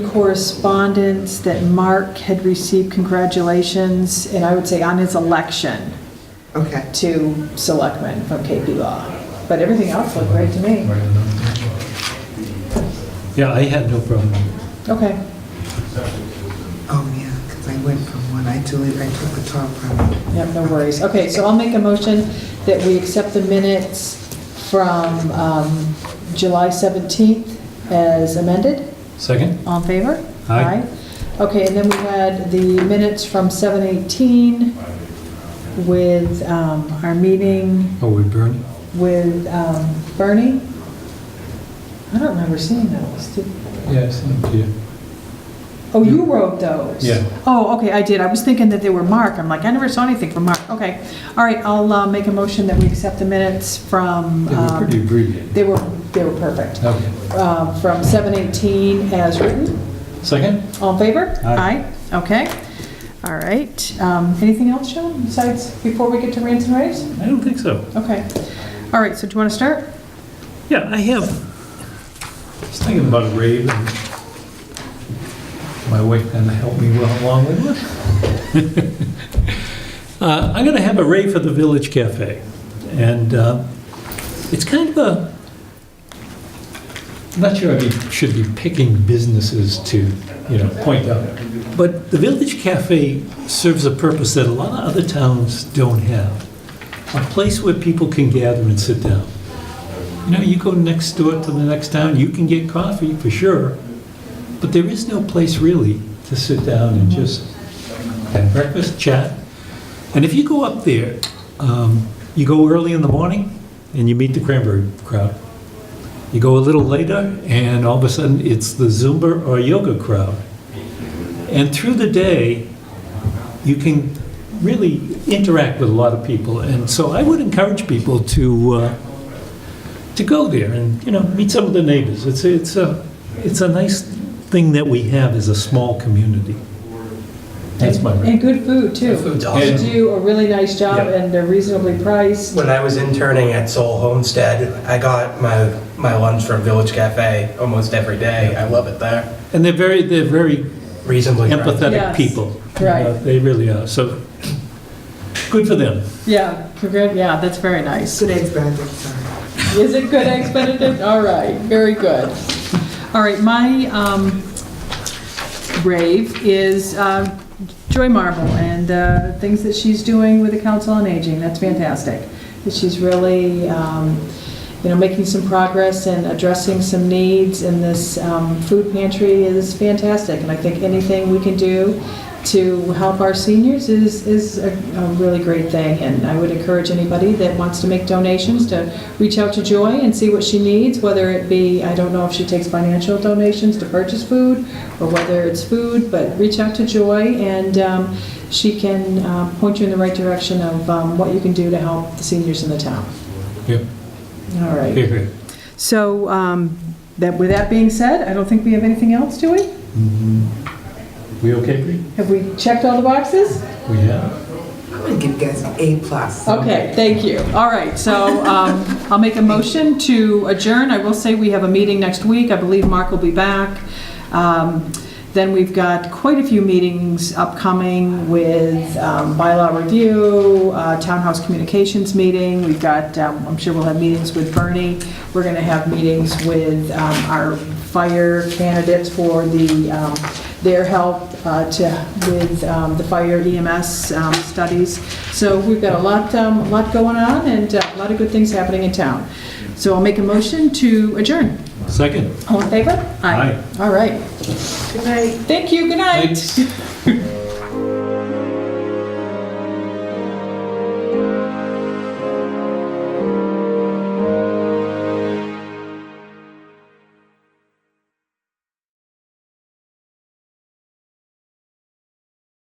correspondence that Mark had received congratulations, and I would say on his election Okay. to selectmen from KP Law. But everything else looked great to me. Yeah, I had no problem. Okay. Oh, yeah, because I went from one, I deleted, I took the top from. Yep, no worries. Okay, so I'll make a motion that we accept the minutes from um, July 17th as amended. Second? All in favor? Aye. Okay, and then we had the minutes from 7:18 with um, our meeting Oh, we burned? with um, Bernie. I don't remember seeing those. Did- Yes. Oh, you wrote those? Yeah. Oh, okay, I did. I was thinking that they were Mark. I'm like, I never saw anything from Mark. Okay. All right, I'll uh, make a motion that we accept the minutes from, They were um, pretty abbreviated. they were, they were perfect, Okay. Uh, from 7:18 as written. Second? All in favor? Aye. Aye. Okay. All right. Um, Anything else, Sean, besides, before we get to rants and raves? I don't think so. Okay. All right, so do you want to start? Yeah, I have. I was thinking about a rave and my wife kind of helped me well along with it. Uh, I'm going to have a rave for the Village Cafe. And uh, it's kind of a, I'm not sure I be- should be picking businesses to, you know, point out. But the Village Cafe serves a purpose that a lot of other towns don't have. A place where people can gather and sit down. You know, you go next door to the next town, you can get coffee for sure, but there is no place really to sit down and just have breakfast, chat. And if you go up there, um, you go early in the morning and you meet the cranberry crowd. You go a little later and all of a sudden it's the Zumba or yoga crowd. And through the day, you can really interact with a lot of people. And so I would encourage people to. Uh, to go there and you know meet some of the neighbors. It's a, it's a it's a nice thing that we have as a small community. That's my And good food, too. The food's They awesome. do a really nice job, Yeah. and they're reasonably priced. When I was interning at Soul Homestead, I got my, my lunch from Village Cafe almost every day. I love it there. and they're very they're very Reasonably priced. empathetic Yes. people. Right. Uh, they really are. So good for them. Yeah, congrat, yeah, that's very nice. Good eggs Benedict, sorry. Is it good, Eggs Benedict? All right, very good. All right, my um, rave is uh, Joy Marble and the things that she's doing with the Council on Aging. That's fantastic. That She's really, um, you know, making some progress and addressing some needs, and this um, food pantry is fantastic. And I think anything we can do to help our seniors is, is a a really great thing, and I would encourage anybody that wants to make donations to reach out to Joy and see what she needs, whether it be, I don't know if she takes financial donations to purchase food, or whether it's food, but reach out to Joy, and um, she can uh, point you in the right direction of um, what you can do to help the seniors in the town. Yeah. All Here, right. here. So, um, that, with that being said, I don't think we have anything else, do we? We okay, Bree? Have we checked all the boxes? We have. I'm gonna give you guys an A plus. Okay, thank you. All right, so um, I'll make a motion to adjourn. I will say we have a meeting next week. I believe Mark will be back. Um, Then we've got quite a few meetings upcoming with um, bylaw review, uh, townhouse communications meeting. We've got, um, I'm sure we'll have meetings with Bernie. We're going to have meetings with um, our fire candidates for the, um, their help uh, to, with um, the fire EMS um, studies. So we've got a lot, um, a lot going on and uh, a lot of good things happening in town. So I'll make a motion to adjourn. Second. All in favor? Aye. All right. Good night. Thank you, good night. Thanks.